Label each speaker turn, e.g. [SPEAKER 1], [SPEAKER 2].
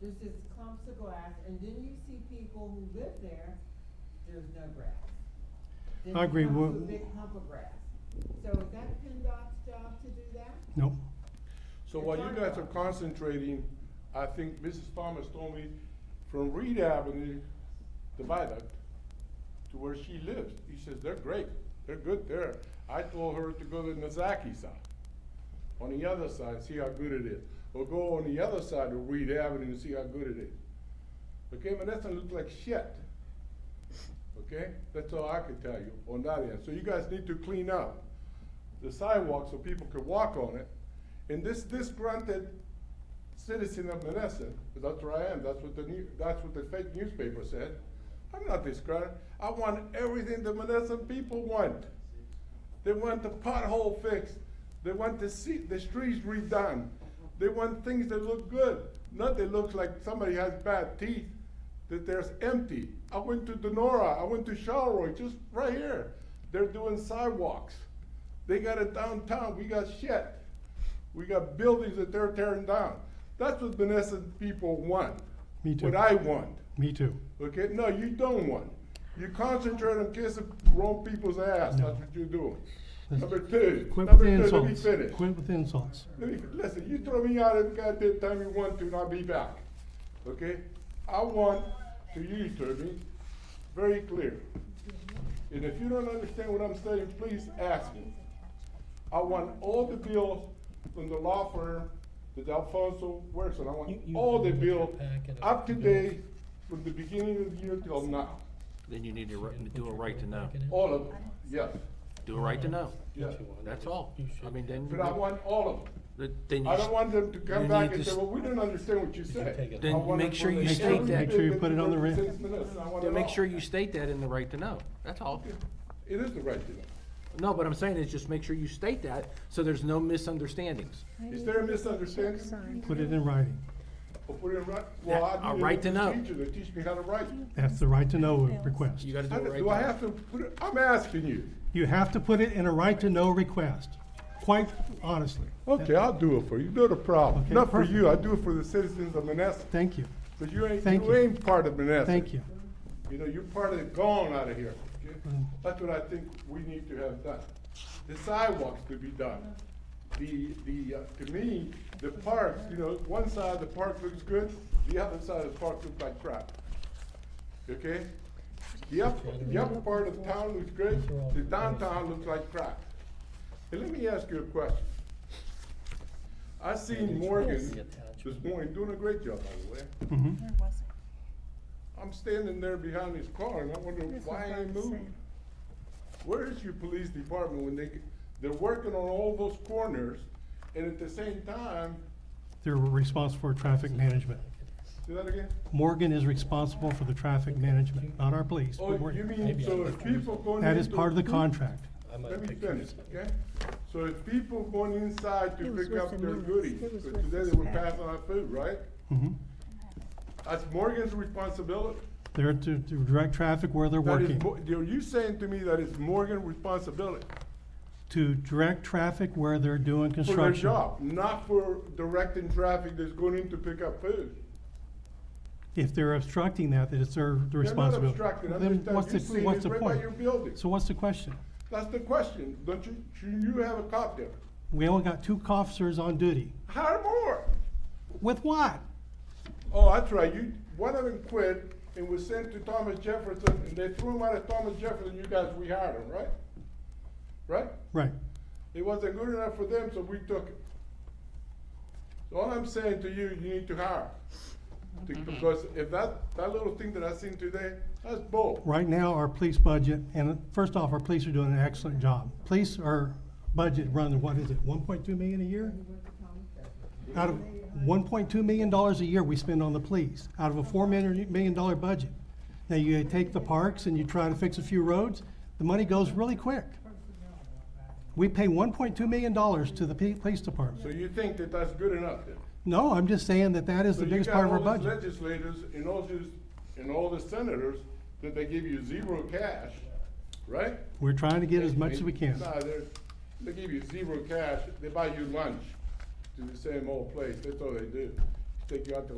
[SPEAKER 1] There's just clumps of grass, and then you see people who live there, there's no grass. Then
[SPEAKER 2] I agree
[SPEAKER 1] it becomes
[SPEAKER 2] with-
[SPEAKER 1] a big hump of grass. So is that PennDOT's job to do that?
[SPEAKER 2] No,
[SPEAKER 3] So while you guys are concentrating, I think Mrs. Thomas told me from Reed Avenue, the viaduct, to where she lives, he says, they're great, they're good there. I told her to go to Nazaki side, on the other side, see how good it is. Or go on the other side of Reed Avenue and see how good it is. Okay, but that doesn't look like shit. Okay, that's all I can tell you on that end. So you guys need to clean up the sidewalk so people could walk on it. And this disgruntled citizen of Menneson, 'cause that's where I am, that's what the new, that's what the fake newspaper said. I'm not disgruntled, I want everything the Menneson people want. They want the pothole fixed, they want the se- the streets redone, they want things that look good, not that looks like somebody has bad teeth, that there's empty. I went to Denora, I went to Charleroy, just right here, they're doing sidewalks. They got it downtown, we got shit. We got buildings that they're tearing down. That's what Menneson people want.
[SPEAKER 2] Me too.
[SPEAKER 3] What I want,
[SPEAKER 2] me too.
[SPEAKER 3] okay? No, you don't want. You concentrate on kissing wrong people's ass, that's what you're doing. Number two,
[SPEAKER 2] Quit with
[SPEAKER 3] number
[SPEAKER 2] the
[SPEAKER 3] two, let me
[SPEAKER 2] insults.
[SPEAKER 3] finish.
[SPEAKER 2] Quit with the insults.
[SPEAKER 3] Let me, listen, you throw me out every goddamn time you want to, and I'll be back, okay? I want to you, Turvey, very clear. And if you don't understand what I'm saying, please ask me. I want all the bills from the law firm that Alfonso works on, I want
[SPEAKER 4] You- you-
[SPEAKER 3] all the
[SPEAKER 4] you have your
[SPEAKER 3] bills
[SPEAKER 4] packet of
[SPEAKER 3] up to
[SPEAKER 4] bills.
[SPEAKER 3] date from the beginning of the year till now,
[SPEAKER 5] Then you need to ri- do a right to know.
[SPEAKER 3] all of them, yes,
[SPEAKER 5] Do a right to know.
[SPEAKER 3] yes.
[SPEAKER 5] That's all. I mean, then,
[SPEAKER 3] But I want all of them.
[SPEAKER 5] th- then you,
[SPEAKER 3] I don't
[SPEAKER 5] s-
[SPEAKER 3] want them to come
[SPEAKER 5] You
[SPEAKER 3] back
[SPEAKER 5] need
[SPEAKER 3] and
[SPEAKER 5] to
[SPEAKER 3] say,
[SPEAKER 5] s-
[SPEAKER 3] well, we didn't understand what you
[SPEAKER 4] can take
[SPEAKER 3] said.
[SPEAKER 4] it
[SPEAKER 3] I
[SPEAKER 5] off.
[SPEAKER 3] want
[SPEAKER 5] Then
[SPEAKER 3] it
[SPEAKER 5] make sure
[SPEAKER 3] for
[SPEAKER 5] you
[SPEAKER 3] the
[SPEAKER 5] state
[SPEAKER 3] every
[SPEAKER 5] that.
[SPEAKER 2] Make sure you
[SPEAKER 3] bit
[SPEAKER 2] put it on the
[SPEAKER 3] of
[SPEAKER 2] re-
[SPEAKER 3] 36 minutes. I want
[SPEAKER 5] then
[SPEAKER 3] it
[SPEAKER 5] make
[SPEAKER 3] all.
[SPEAKER 5] sure you state that in the right to know. That's all.
[SPEAKER 3] It is the right to know.
[SPEAKER 5] No, what I'm saying is just make sure you state that so there's no misunderstandings.
[SPEAKER 3] Is there a misunderstanding?
[SPEAKER 2] Put it in writing.
[SPEAKER 3] Or put it right, well,
[SPEAKER 5] Yeah,
[SPEAKER 3] I
[SPEAKER 5] a
[SPEAKER 3] need
[SPEAKER 5] right to know.
[SPEAKER 3] a teacher to teach me how to write.
[SPEAKER 2] That's the right to know request.
[SPEAKER 5] You gotta do
[SPEAKER 3] I-
[SPEAKER 5] a right to know.
[SPEAKER 3] Do I have to put it, I'm asking you.
[SPEAKER 2] You have to put it in a right to know request, quite honestly.
[SPEAKER 3] Okay, I'll do it for you, not a problem.
[SPEAKER 2] Okay,
[SPEAKER 3] Not for
[SPEAKER 2] perfect.
[SPEAKER 3] you, I do it for the citizens of Menneson,
[SPEAKER 2] Thank you,
[SPEAKER 3] because you ain't,
[SPEAKER 2] Thank
[SPEAKER 3] you
[SPEAKER 2] you.
[SPEAKER 3] ain't part of Menneson.
[SPEAKER 2] thank you.
[SPEAKER 3] You know, you're part of the gone out of here. okay?
[SPEAKER 2] Mm.
[SPEAKER 3] That's what I think we need to have done. The sidewalks to be done. The, the, uh, to me, the parks, you know, one side of the park looks good, the other side of the park looks like crap. Okay? The upper, the upper part of town looks good, the downtown looks like crap. And let me ask you a question. I seen Morgan this morning doing a great job, by the way.
[SPEAKER 2] Mhm.
[SPEAKER 6] There wasn't.
[SPEAKER 3] I'm standing there behind his car and I wonder
[SPEAKER 6] This is
[SPEAKER 3] why
[SPEAKER 6] what
[SPEAKER 3] I
[SPEAKER 6] I'm
[SPEAKER 3] ain't moving.
[SPEAKER 6] saying.
[SPEAKER 3] Where is your police department when they, they're working on all those corners and at the same time,
[SPEAKER 2] They're responsible for traffic management.
[SPEAKER 3] say that again?
[SPEAKER 2] Morgan is responsible for the traffic management, not our police.
[SPEAKER 3] Oh,
[SPEAKER 2] but Morgan.
[SPEAKER 3] you mean,
[SPEAKER 4] Maybe
[SPEAKER 3] so
[SPEAKER 4] I'm
[SPEAKER 3] if
[SPEAKER 4] confused.
[SPEAKER 3] people going into.
[SPEAKER 2] That is part of the contract.
[SPEAKER 4] I might
[SPEAKER 3] Let me
[SPEAKER 4] pick yours
[SPEAKER 3] finish,
[SPEAKER 4] up.
[SPEAKER 3] okay? So if people going inside
[SPEAKER 6] It
[SPEAKER 3] to
[SPEAKER 6] was
[SPEAKER 3] pick up
[SPEAKER 6] with the
[SPEAKER 3] their
[SPEAKER 6] minutes.
[SPEAKER 3] goodies,
[SPEAKER 6] It was
[SPEAKER 3] 'cause
[SPEAKER 6] with
[SPEAKER 3] today
[SPEAKER 6] this
[SPEAKER 3] they were
[SPEAKER 6] packet.
[SPEAKER 3] passing out food, right?
[SPEAKER 2] Mhm.
[SPEAKER 3] That's Morgan's responsibility.
[SPEAKER 2] They're to, to direct traffic where they're
[SPEAKER 3] That is,
[SPEAKER 2] working,
[SPEAKER 3] Mo- you're you saying to me that it's Morgan's responsibility?
[SPEAKER 2] to direct traffic where they're doing
[SPEAKER 3] for
[SPEAKER 2] construction.
[SPEAKER 3] their job, not for directing traffic that's going in to pick up food.
[SPEAKER 2] If they're obstructing that, that it's their responsibility.
[SPEAKER 3] They're not obstructing,
[SPEAKER 2] Then
[SPEAKER 3] I'm
[SPEAKER 2] what's
[SPEAKER 3] just
[SPEAKER 2] the-
[SPEAKER 3] telling you, you see
[SPEAKER 2] what's
[SPEAKER 3] this
[SPEAKER 2] the
[SPEAKER 3] right by
[SPEAKER 2] point?
[SPEAKER 3] your building.
[SPEAKER 2] So what's the question?
[SPEAKER 3] That's the question, don't you, should you have a cop there?
[SPEAKER 2] We only got two officers on duty.
[SPEAKER 3] Hire more.
[SPEAKER 2] With what?
[SPEAKER 3] Oh, that's right, you, one of them quit and was sent to Thomas Jefferson, and they threw him out of Thomas Jefferson, you guys rehired him, right? Right?
[SPEAKER 2] Right.
[SPEAKER 3] It wasn't good enough for them, so we took it. So all I'm saying to you, you need to hire. To- Because if that, that little thing that I seen today, that's bull.
[SPEAKER 2] Right now, our police budget, and first off, our police are doing an excellent job. Police are budget run, what is it, one point two million a year? Out of, one point two million dollars a year we spend on the police, out of a four million, million dollar budget. Now, you take the parks and you try to fix a few roads, the money goes really quick. We pay one point two million dollars to the pe- police
[SPEAKER 3] So
[SPEAKER 2] department.
[SPEAKER 3] you think that that's good enough then?
[SPEAKER 2] No, I'm just saying that that is
[SPEAKER 3] So
[SPEAKER 2] the
[SPEAKER 3] you
[SPEAKER 2] biggest
[SPEAKER 3] got
[SPEAKER 2] part of our
[SPEAKER 3] all these
[SPEAKER 2] budget.
[SPEAKER 3] Legislators and all these, and all the senators, that they give you zero cash, right?
[SPEAKER 2] We're trying to get as much as we can.
[SPEAKER 3] Nah, they're, they give you zero cash, they buy you lunch to the same old place, that's all they do. Take you out to